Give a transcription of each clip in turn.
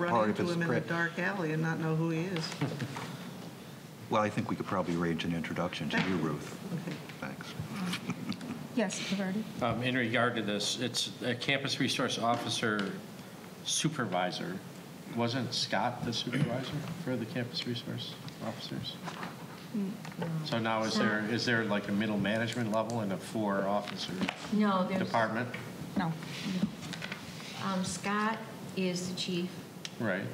run Or if into it's him in a print. dark alley and not know who he is. Well, I think we could probably arrange an introduction to you, Ruth. Thanks. Yes, Reverdy. Um, In regard to this, it's a campus resource officer supervisor. Wasn't Scott the supervisor for the campus resource officers? So now is there, is there like a middle management level and a four-officer No, there's. department? No. Um, Scott is the chief, Right.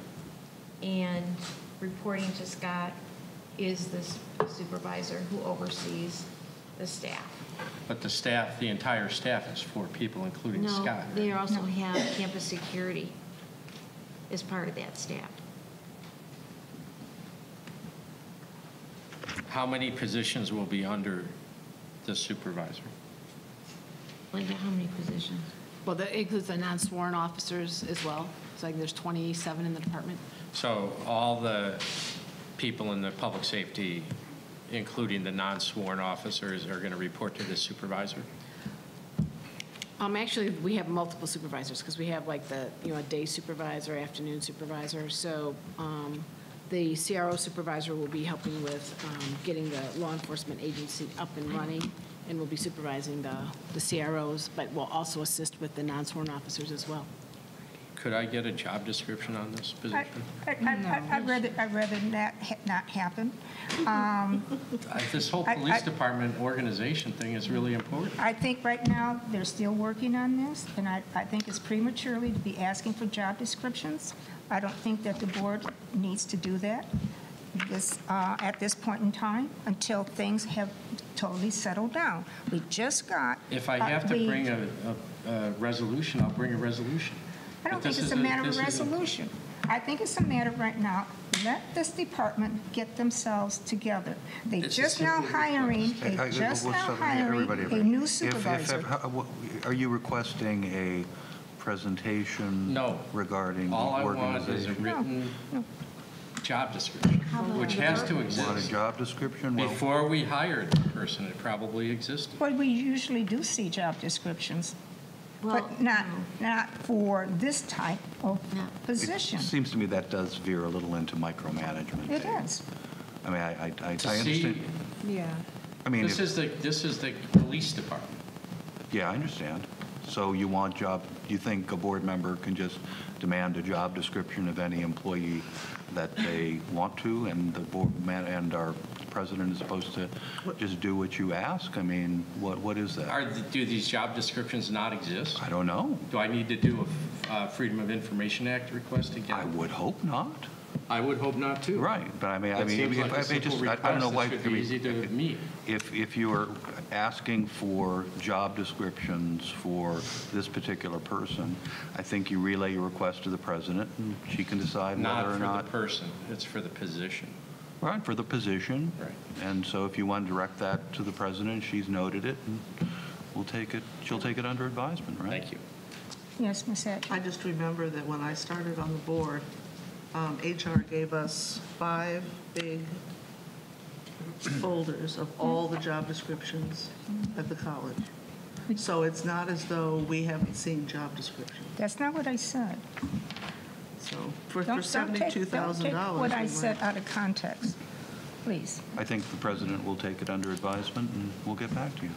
and reporting to Scott is the supervisor who oversees the staff. But the staff, the entire staff is four people, including Scott. No, right? they also have campus security as part of that staff. How many positions will be under the supervisor? Like, how many positions? Well, that includes the non-sworn officers as well. It's like there's 27 in the department. So all the people in the public safety, including the non-sworn officers, are going to report to the supervisor? Um, Actually, we have multiple supervisors because we have like the, you know, a day supervisor, afternoon supervisor. So um, the CRO supervisor will be helping with um, getting the law enforcement agency up and running and will be supervising the the CROs, but will also assist with the non-sworn officers as well. Could I get a job description on this I- position? I- I- I'd rather, I'd rather that ha- not happen. Um, Uh, This whole I- police I- department organization thing is really important. I think right now, they're still working on this, and I, I think it's prematurely to be asking for job descriptions. I don't think that the board needs to do that this, uh, at this point in time, until things have totally settled down. We just got. If I uh, have to we- bring a, a- a resolution, I'll bring a resolution. I don't But this think it's is a matter of this is a- resolution. I think it's a matter right now, let this department get themselves together. They This is just now simply a hiring, I- I- they just what's now up, everybody, hiring a everybody? If- new if- supervisor. how- what- Are you requesting a presentation? No. Regarding the All I want is a organization? written Oh. job description, about which has to Want a exist. job description? Well, Before we hired the person, it probably existed. Well, we usually do see job descriptions, Well, but not, no. not for this type of No. position. It seems to me that does veer a little into micromanagement. It Dave. is. I mean, I, I- I I To see, understand. Yeah. I mean, this if- is the, this is the police department. yeah, I understand. So you want job, you think a board member can just demand a job description of any employee that they want to, and the board, man- and our president is supposed to just do what you ask? I mean, what, what is that? Are, the- do these job descriptions not exist? I don't know. Do I need to do a uh, Freedom of Information Act request I again? would hope not. I would hope not, too. Right, but I mean, I That mean, seems if like a I may simple just, I I don't know request that why. should I be mean, easy to if- meet. If, if you are asking for job descriptions for this particular person, I think you relay your request to the president, and she can decide Not whether for or the not. person, it's for the position. Right, for the position. Right. And so if you want to direct that to the president, she's noted it, and we'll take it, she'll take it under advisement, right? Thank you. Yes, Ms. Hatch. I just remember that when I started on the board, um, HR gave us five big folders of all the job descriptions at the college. So it's not as though we haven't seen job descriptions. That's not what I said. So for for Don't- don't take- $72,000. Don't take what we I might- said out of context, please. I think the president will take it under advisement, and we'll get back to you.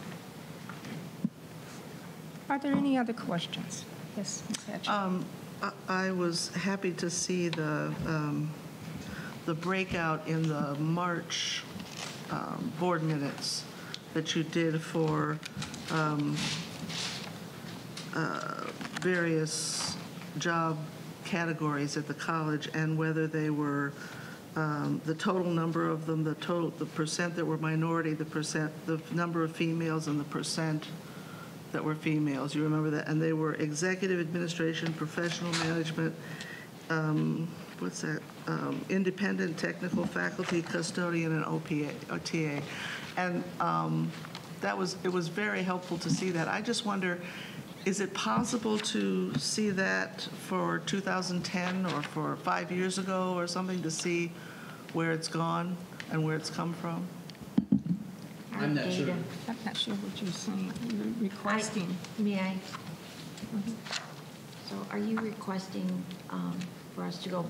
Are there any other questions? Yes, Ms. Hatch. Uh, Um, I- I was happy to see the, um, the breakout in the March um, board minutes that you did for um, uh, various job categories at the college and whether they were, um, the total number of them, the total, the percent that were minority, the percent, the number of females and the percent that were females, you remember that? And they were executive administration, professional management, um, what's that? Um, Independent technical faculty, custodian, and OPA, or TA. And um, that was, it was very helpful to see that. I just wonder, is it possible to see that for 2010 or for five years ago or something, to see where it's gone and where it's come from? I'm not sure. I'm not sure what you're saying, You're requesting. Mm-hmm. May I? So are you requesting um, for us to go